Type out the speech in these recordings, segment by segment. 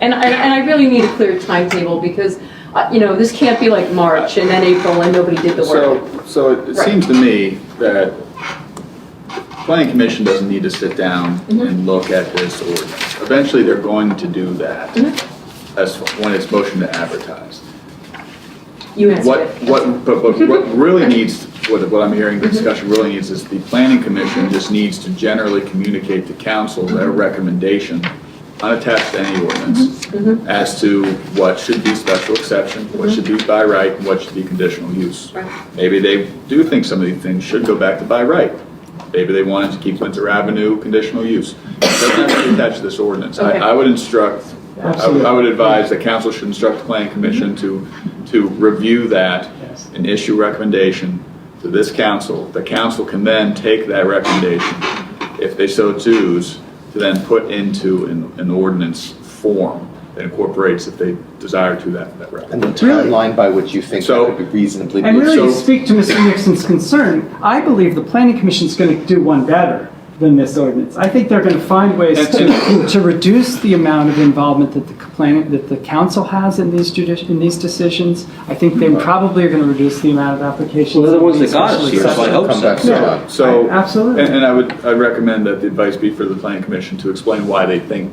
and I, and I really need a clear timetable because, uh, you know, this can't be like March and then April and nobody did the work. So, so it- it Right. seems to me that planning commission doesn't need to sit down Mm-hmm. and look at this ordinance. Eventually, they're going to do that Mm-hmm. as, when it's motion to advertise. You answered What, it. what, but, but what really needs, what, what I'm hearing the discussion really needs is the planning commission just needs to generally communicate to council their Mm-hmm. recommendation, unattached to any ordinance, Mm-hmm. as to what should be special exception, what should be by right, and what should be conditional use. Right. Maybe they do think some of these things should go back to by right. Maybe they wanted to keep Windsor Avenue conditional use. It Doesn't have to be attached to this ordinance. I, Okay. I would instruct, I would- I would advise the council should instruct the planning commission to, to review that Yes. and issue recommendation to this council. The council can then take that recommendation, if they so choose, to then put into an, an ordinance form that incorporates, if they desire to, that, that recommendation. And the Really? timeline by which you think So- that would be reasonably. And really, to So- speak to Mr. Nixon's concern, I believe the planning commission's going to do one better than this ordinance. I think they're going to find ways That's to, to reduce the amount of involvement that the planning, that the council has in these judici, in these decisions. I think they probably are going to reduce the amount of applications. Well, they're the ones of that got us these here, so I special hope Come back to Yeah. that. So. I- absolutely. And, and I would, I recommend that the advice be for the planning commission to explain why they think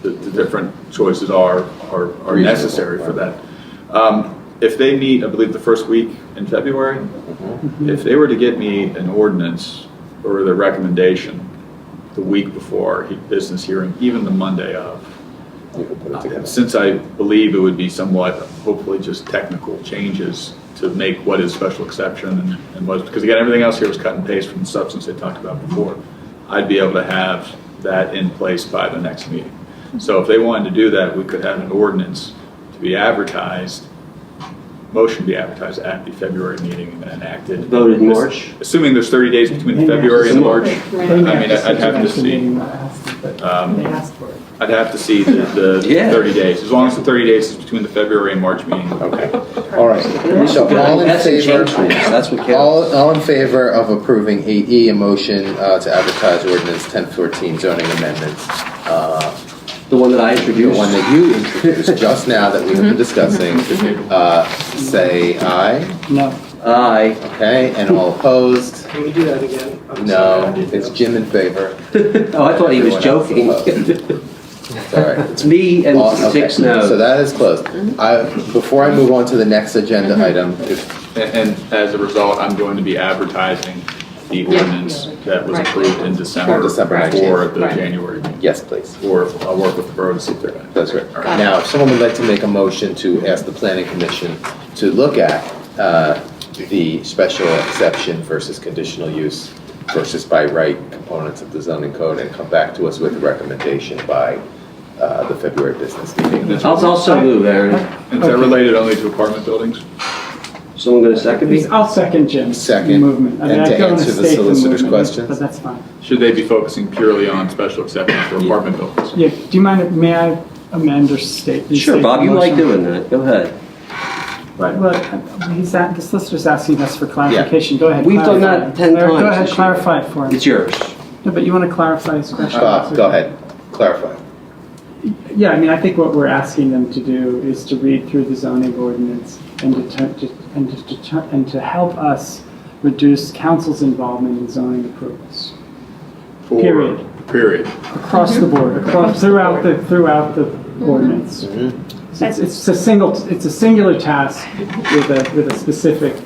the, the different choices are, are, are necessary for that. Um, If they meet, I believe, the first week in February, Mm-hmm. if they were to get me an ordinance or the recommendation the week before our he- business hearing, even the Monday of, You can put it uh, together. Since I believe it would be somewhat, hopefully just technical changes to make what is special exception and- and what, because again, everything else here was cut and paste from the substance they talked about before. I'd be able to have that in place by the next meeting. So if they wanted to do that, we could have an ordinance to be advertised, motion be advertised at the February meeting and then enacted. Voted in March. Assuming there's 30 days between February and March. Right. I mean, I'd have to see. Um, They asked for it. I'd have to see the, the Yeah. 30 days, as long as the 30 days is between the February and March meeting. Okay, all right. So all in That's a favor, change for us. That's what all, counts. all in favor of approving eight E, a motion uh, to advertise ordinance ten fourteen zoning amendments. uh, The one that I The introduced. one that you introduced just now that we've been discussing, uh, say aye, No. Aye. okay, and all opposed? Can we do that again? I'm sorry, No, I did it's that. Jim in favor, Oh, I thought he Everyone was else joking. opposed. it's all right. It's me and All- okay, six no's. So that is closed. Mm-hmm. I, before I move on to the next agenda item, if, And, and as a result, I'm going to be advertising the Yeah. ordinance that was Right. approved in December. For December For 19th. the Right. January, yes, please. or I'll work with the borough to see if they're gonna. That's right. All Got it. Now, if someone would like to make a motion to ask the planning commission to look at uh, the special exception versus conditional use versus by right components of the zoning code and come back to us with a recommendation by uh, the February business meeting. That's- I'll also move, Aaron. Is that related only to apartment buildings? Someone going to second me? I'll second Jim's Second. movement. I mean, And I to don't wanna answer the state solicitor's movement, questions? But that's fine. Should they be focusing purely on special exceptions for apartment buildings? Yeah, do you mind, if- may I amend or state? Sure, restate Bob, the you like motion? doing that. Go ahead. Right, well, uh, he's, at- the solicitor's asking us for clarification, go ahead. We've done clarify that it. 10 Larry, Go times ahead, this year. clarify it for him. It's Uh, yours. No, but you want to clarify his question. Bob, go ahead, clarify. Yeah, I mean, I think what we're asking them to do is to read through the zoning ordinance and deter, to- and to, deter, and to help us reduce council's involvement in zoning approvals. For- Period. Period. Across the Mm-hmm. board, across, throughout the, throughout the ordinance. So It's, it's a single, it's a singular task with a, with a specific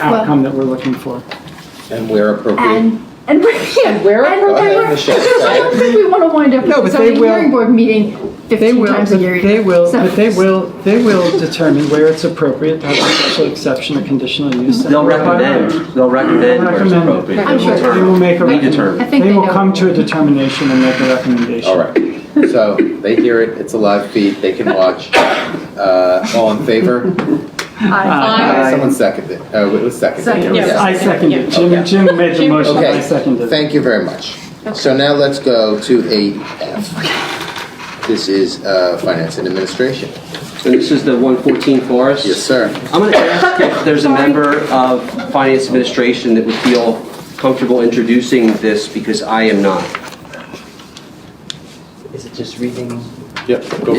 outcome that we're looking for. And where appropriate. And, and we're, yeah, we're and Go ahead, we're- Michelle. I don't think we want to wind up No, with but a they zoning will- hearing board meeting They fifteen will, times but a year. They will, So- but they will, they will determine where it's appropriate to have a special exception or conditional use. They'll recommend. They'll recommend where it's Recommend. appropriate. I'm They sure. will determine. They will make a We recommendation. determine. I think They they will know. come to a determination and make a recommendation. All right. So they hear it, it's a live feed, they can watch. Uh, All in favor? Aye. Aye, Someone seconded. Oh, it was seconded. Second, Yes. I second it. Jim, Jim made the motion, I Okay, seconded it. thank you very much. So now let's go to 8F. This is uh, Finance and Administration. And this is the 114 Forest? Yes, sir. I'm going to ask if there's a member of Finance Administration that would feel comfortable introducing this, because I am not. Is it just reading Yep.